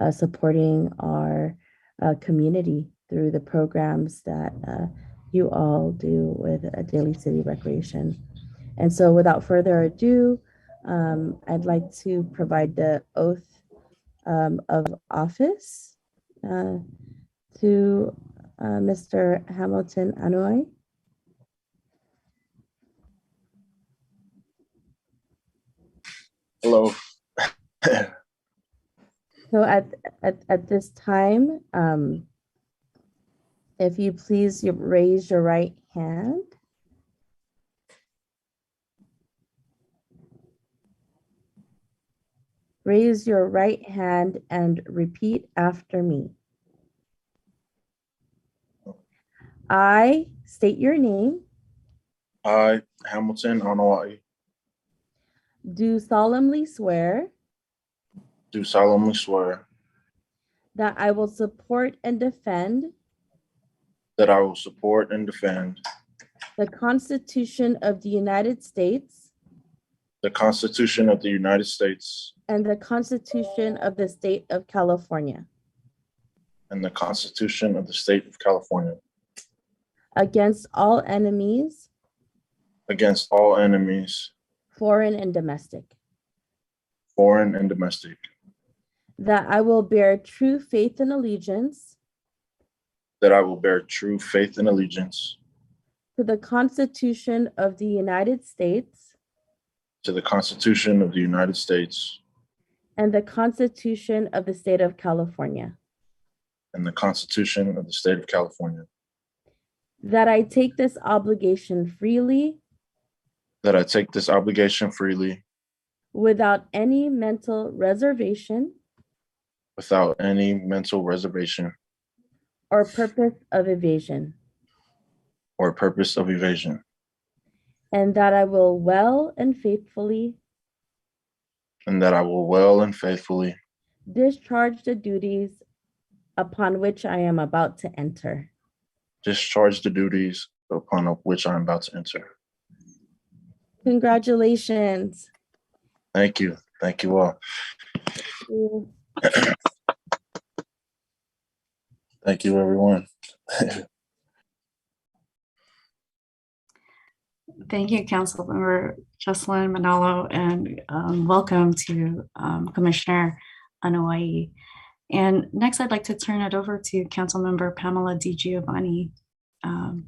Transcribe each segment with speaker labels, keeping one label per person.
Speaker 1: uh, supporting our uh, community through the programs that uh, you all do with uh, Daily City Recreation. And so without further ado, um, I'd like to provide the oath um, of office uh, to uh, Mr. Hamilton Anoy.
Speaker 2: Hello.
Speaker 1: So at, at, at this time, um, if you please you raise your right hand. Raise your right hand and repeat after me. I state your name,
Speaker 2: I, Hamilton Anawai,
Speaker 1: do solemnly swear
Speaker 2: do solemnly swear
Speaker 1: that I will support and defend
Speaker 2: that I will support and defend
Speaker 1: the Constitution of the United States
Speaker 2: the Constitution of the United States
Speaker 1: And the Constitution of the State of California
Speaker 2: and the Constitution of the State of California
Speaker 1: against all enemies,
Speaker 2: against all enemies,
Speaker 1: foreign and domestic.
Speaker 2: foreign and domestic,
Speaker 1: That I will bear true faith and allegiance
Speaker 2: that I will bear true faith and allegiance
Speaker 1: to the Constitution of the United States
Speaker 2: to the Constitution of the United States
Speaker 1: and the Constitution of the State of California.
Speaker 2: and the Constitution of the State of California,
Speaker 1: That I take this obligation freely
Speaker 2: that I take this obligation freely
Speaker 1: without any mental reservation
Speaker 2: without any mental reservation
Speaker 1: or purpose of evasion.
Speaker 2: or purpose of evasion,
Speaker 1: And that I will well and faithfully
Speaker 2: and that I will well and faithfully
Speaker 1: discharge the duties upon which I am about to enter.
Speaker 2: discharge the duties upon which I am about to enter.
Speaker 1: Congratulations.
Speaker 2: Thank you. Thank you all. Thank you, everyone.
Speaker 3: Thank you, Councilmember Jocelyn Manalo, and um, welcome to um, Commissioner Anawai. And next, I'd like to turn it over to Councilmember Pamela Di Giovanni. Um,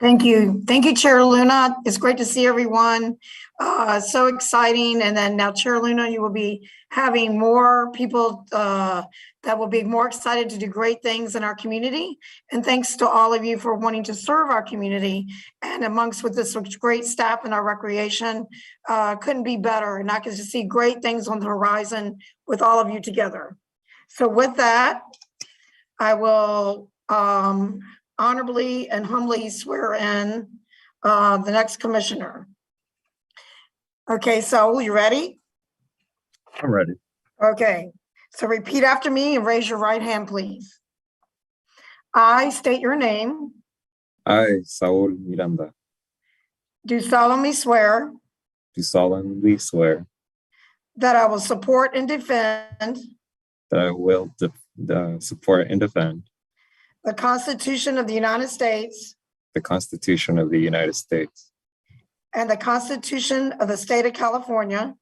Speaker 4: Thank you. Thank you, Chair Luna. It's great to see everyone. Uh, So exciting. And then now Chair Luna, you will be having more people uh, that will be more excited to do great things in our community. And thanks to all of you for wanting to serve our community and amongst with this great staff in our recreation. uh, Couldn't be better. And I can just see great things on the horizon with all of you together. So with that, I will um, honorably and humbly swear in uh, the next commissioner. Okay, Saul, you ready?
Speaker 2: I'm ready.
Speaker 4: Okay, so repeat after me and raise your right hand, please. I state your name,
Speaker 5: I, Saul Miranda,
Speaker 4: do solemnly swear
Speaker 5: do solemnly swear
Speaker 4: that I will support and defend
Speaker 5: that I will de- uh, support and defend
Speaker 4: the Constitution of the United States
Speaker 5: the Constitution of the United States
Speaker 4: and the Constitution of the State of California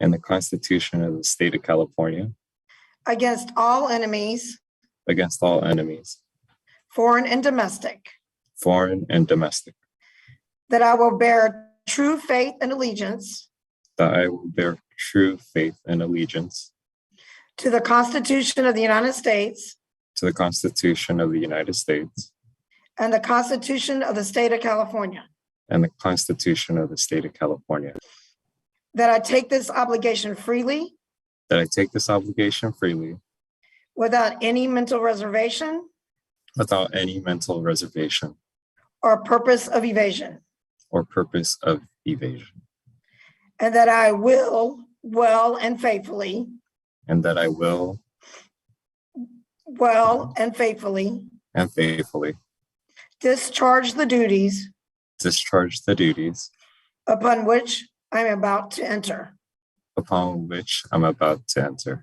Speaker 5: and the Constitution of the State of California
Speaker 4: against all enemies,
Speaker 5: against all enemies,
Speaker 4: foreign and domestic,
Speaker 5: foreign and domestic,
Speaker 4: that I will bear true faith and allegiance
Speaker 5: that I will bear true faith and allegiance
Speaker 4: To the Constitution of the United States
Speaker 5: to the Constitution of the United States
Speaker 4: and the Constitution of the State of California.
Speaker 5: and the Constitution of the State of California,
Speaker 4: That I take this obligation freely
Speaker 5: that I take this obligation freely
Speaker 4: without any mental reservation
Speaker 5: without any mental reservation
Speaker 4: or purpose of evasion.
Speaker 5: or purpose of evasion,
Speaker 4: And that I will well and faithfully,
Speaker 5: and that I will
Speaker 4: well and faithfully
Speaker 5: and faithfully
Speaker 4: discharge the duties
Speaker 5: discharge the duties
Speaker 4: upon which I'm about to enter.
Speaker 5: upon which I'm about to enter.